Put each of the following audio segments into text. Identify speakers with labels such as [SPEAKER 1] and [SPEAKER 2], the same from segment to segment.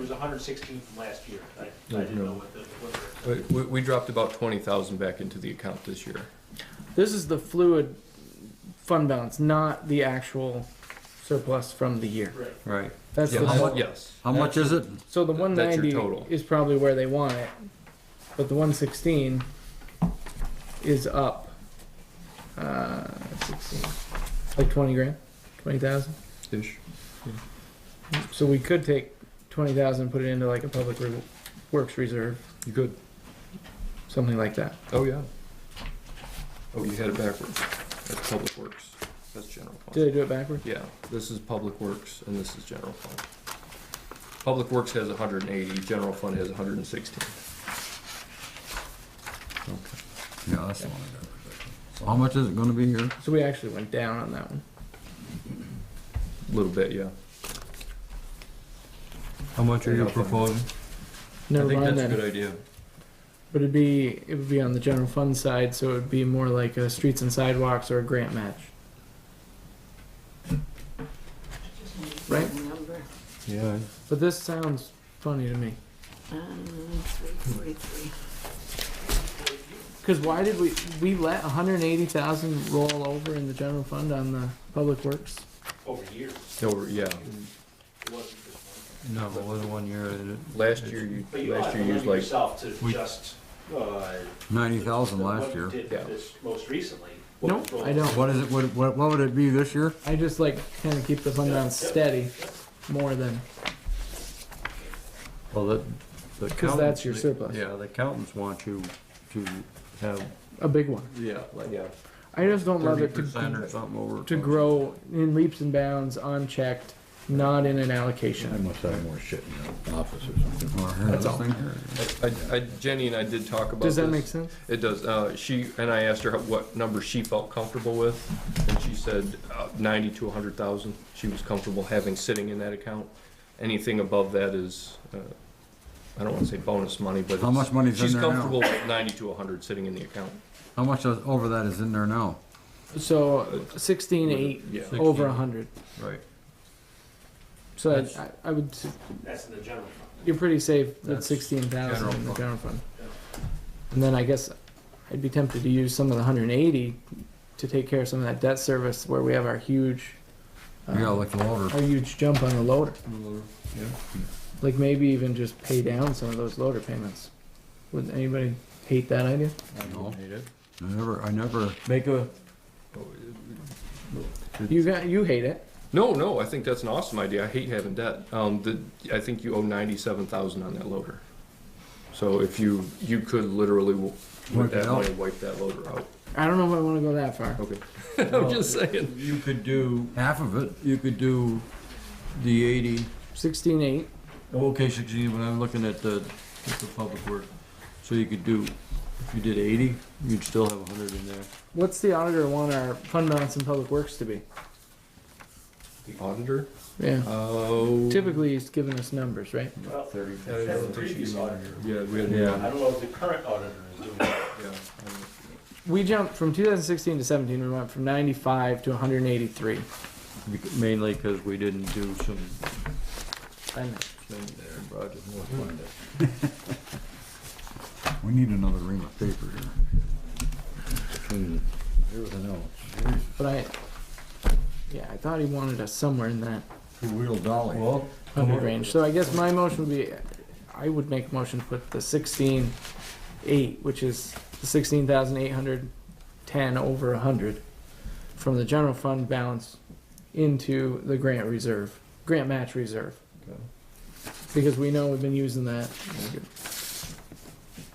[SPEAKER 1] was hundred sixteen from last year. I, I
[SPEAKER 2] No,
[SPEAKER 1] didn't
[SPEAKER 2] no.
[SPEAKER 1] know what the, what the.
[SPEAKER 2] We, we- we dropped about twenty thousand back into the account this year.
[SPEAKER 3] This is the fluid fund balance, not the actual surplus from the year.
[SPEAKER 1] Right.
[SPEAKER 4] Right.
[SPEAKER 3] That's
[SPEAKER 2] Yes,
[SPEAKER 3] the
[SPEAKER 4] How much-
[SPEAKER 2] Yes.
[SPEAKER 4] How much is it?
[SPEAKER 3] so the
[SPEAKER 2] Th-
[SPEAKER 3] one
[SPEAKER 2] that's your
[SPEAKER 3] ninety
[SPEAKER 2] total.
[SPEAKER 3] is probably where they want it, but the one sixteen is up. Uh, sixteen, like twenty grand, twenty thousand.
[SPEAKER 2] Ish.
[SPEAKER 3] So we could take twenty thousand, put it into like a public re- works reserve,
[SPEAKER 2] You good?
[SPEAKER 3] something like that.
[SPEAKER 2] Oh, yeah. Oh, you had it backwards. That's public works. That's general fund.
[SPEAKER 3] Did I do it backwards?
[SPEAKER 2] Yeah, this is Public Works and this is General Fund. Public Works has hundred and eighty, General Fund has hundred and sixteen.
[SPEAKER 4] Yeah, that's the one I got. So how much is it gonna be here?
[SPEAKER 3] So we actually went down on that one.
[SPEAKER 2] Little bit, yeah.
[SPEAKER 5] How much are you proposing?
[SPEAKER 3] Never
[SPEAKER 2] I think
[SPEAKER 3] mind
[SPEAKER 2] that's a
[SPEAKER 3] that.
[SPEAKER 2] good idea.
[SPEAKER 3] But it'd be it would be on the general fund side, so it would be more like a streets and sidewalks or a grant match. Right?
[SPEAKER 5] Yeah.
[SPEAKER 3] But this sounds funny to me. Because why did we we let 180,000 roll over in the general fund on the public works?
[SPEAKER 1] Over years,
[SPEAKER 2] No, yeah,
[SPEAKER 1] it wasn't just one.
[SPEAKER 5] No, it wasn't one year. it-
[SPEAKER 2] last year, you,
[SPEAKER 1] But you
[SPEAKER 2] last
[SPEAKER 1] ought to
[SPEAKER 2] year you
[SPEAKER 1] limit
[SPEAKER 2] used like,
[SPEAKER 1] yourself to
[SPEAKER 5] We-
[SPEAKER 1] just, uh.
[SPEAKER 4] Ninety thousand
[SPEAKER 1] the-
[SPEAKER 4] last
[SPEAKER 1] what you
[SPEAKER 4] year.
[SPEAKER 1] Did
[SPEAKER 2] Yeah.
[SPEAKER 1] this most recently.
[SPEAKER 3] No, I don't.
[SPEAKER 4] What is it, what, what, what would it be this year?
[SPEAKER 3] I just like kind of keep the fund balance steady more than
[SPEAKER 5] Well, the, the
[SPEAKER 3] because that's your
[SPEAKER 5] accountants-
[SPEAKER 3] surplus.
[SPEAKER 5] Yeah, the accountants want you to have
[SPEAKER 3] A big one.
[SPEAKER 2] yeah, like, yeah.
[SPEAKER 3] I just don't love
[SPEAKER 5] thirty
[SPEAKER 3] it to
[SPEAKER 5] percent or something over.
[SPEAKER 3] to grow in leaps and bounds, unchecked, not in an allocation.
[SPEAKER 6] must have more shit in the office or something.
[SPEAKER 4] Or here,
[SPEAKER 3] That's
[SPEAKER 4] this
[SPEAKER 3] all.
[SPEAKER 4] thing here.
[SPEAKER 2] I, I, Jenny and I did talk about
[SPEAKER 3] Does that
[SPEAKER 2] this.
[SPEAKER 3] make sense?
[SPEAKER 2] It does. Uh, she and I asked her how- what number she felt comfortable with, and she said uh, ninety to a hundred thousand. She was comfortable having sitting in that account. Anything above that is, uh, I don't want to say bonus money, but
[SPEAKER 4] How
[SPEAKER 2] it's-
[SPEAKER 4] much money's in
[SPEAKER 2] she's
[SPEAKER 4] there now?
[SPEAKER 2] comfortable with ninety to a hundred sitting in the account.
[SPEAKER 4] How much is- over that is in there now?
[SPEAKER 3] So sixteen eight
[SPEAKER 2] Yeah,
[SPEAKER 3] over a hundred.
[SPEAKER 2] right.
[SPEAKER 3] So I- I, I would, s-
[SPEAKER 1] That's in the general fund.
[SPEAKER 3] you're pretty safe with
[SPEAKER 5] That's
[SPEAKER 3] sixteen thousand
[SPEAKER 5] general
[SPEAKER 3] in the
[SPEAKER 5] fund.
[SPEAKER 3] general fund.
[SPEAKER 1] Yeah.
[SPEAKER 3] And then I guess I'd be tempted to use some of the hundred and eighty to take care of some of that debt service where we have our huge,
[SPEAKER 4] You gotta
[SPEAKER 3] uh,
[SPEAKER 4] look the loader.
[SPEAKER 3] our huge jump on the loader. Like maybe even just pay down some of those loader payments. Wouldn't anybody hate that idea?
[SPEAKER 4] No.
[SPEAKER 2] Hate it.
[SPEAKER 4] I never, I never,
[SPEAKER 3] Make a. You got, you hate it.
[SPEAKER 2] No, no, I think that's an awesome idea. I hate having debt. Um, the, I think you owe ninety-seven thousand on that loader. So if you, you could literally, w-
[SPEAKER 4] Wipe
[SPEAKER 2] with
[SPEAKER 4] it
[SPEAKER 2] that
[SPEAKER 4] out.
[SPEAKER 2] money, wipe that loader out.
[SPEAKER 3] I don't know if I want to go that far.
[SPEAKER 2] Okay. I'm just saying.
[SPEAKER 5] You could do,
[SPEAKER 4] half of it,
[SPEAKER 5] you could do the eighty,
[SPEAKER 3] Sixteen eight.
[SPEAKER 5] okay, sixteen, but I'm looking at the, at the public work. So you could do, if you did eighty, you'd still have a hundred in there.
[SPEAKER 3] What's the auditor want our fund balance in public works to be?
[SPEAKER 2] The auditor?
[SPEAKER 3] Yeah.
[SPEAKER 2] Oh.
[SPEAKER 3] Typically, he's giving us numbers, right?
[SPEAKER 1] Well,
[SPEAKER 2] Thirty.
[SPEAKER 1] that's the previous auditor.
[SPEAKER 2] Yeah, we had,
[SPEAKER 5] Yeah.
[SPEAKER 2] yeah.
[SPEAKER 1] I don't know if the current auditor is doing that.
[SPEAKER 3] We jumped from 2016 to 17. We went from 95 to 183.
[SPEAKER 5] Bec- Mainly because we didn't do some,
[SPEAKER 3] I know.
[SPEAKER 5] some projects.
[SPEAKER 4] we need another ream of paper here.
[SPEAKER 6] Everything else.
[SPEAKER 3] But I, yeah, I thought he wanted us somewhere in that
[SPEAKER 4] Two-wheel dolly.
[SPEAKER 5] Well,
[SPEAKER 3] 100 range. So I guess my motion would be, I would make a motion to put the 16 eight, which is the 16,810 over 100 from the general fund balance into the grant reserve, grant match reserve. because we know we've been using that. And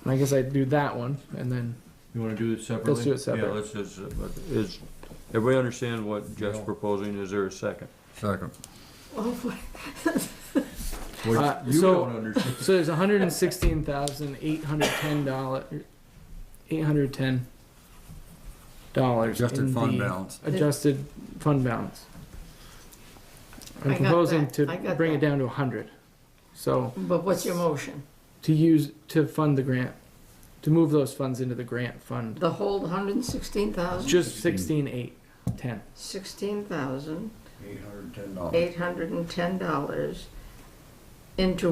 [SPEAKER 3] I guess I'd do that one, and then
[SPEAKER 5] You wanna do it separately?
[SPEAKER 3] do it separate.
[SPEAKER 5] Yeah, let's just, but is, everybody understand what Jeff's
[SPEAKER 4] No.
[SPEAKER 5] proposing? Is there a second?
[SPEAKER 4] Second.
[SPEAKER 3] Uh,
[SPEAKER 5] You
[SPEAKER 3] so-
[SPEAKER 5] don't understand.
[SPEAKER 3] so there's one hundred and sixteen thousand eight hundred ten dollars, eight hundred ten dollars
[SPEAKER 4] Adjusted fund balance.
[SPEAKER 3] Adjusted fund balance.
[SPEAKER 7] I
[SPEAKER 3] I'm
[SPEAKER 7] got
[SPEAKER 3] proposing
[SPEAKER 7] that.
[SPEAKER 3] to
[SPEAKER 7] I got
[SPEAKER 3] bring it
[SPEAKER 7] that.
[SPEAKER 3] down to a hundred, so
[SPEAKER 7] But what's your motion?
[SPEAKER 3] to use to fund the grant, to move those funds into the grant fund,
[SPEAKER 7] The whole hundred and sixteen thousand,
[SPEAKER 3] just sixteen eight ten.
[SPEAKER 7] sixteen thousand,
[SPEAKER 4] Eight hundred and ten dollars.
[SPEAKER 7] eight hundred and ten dollars into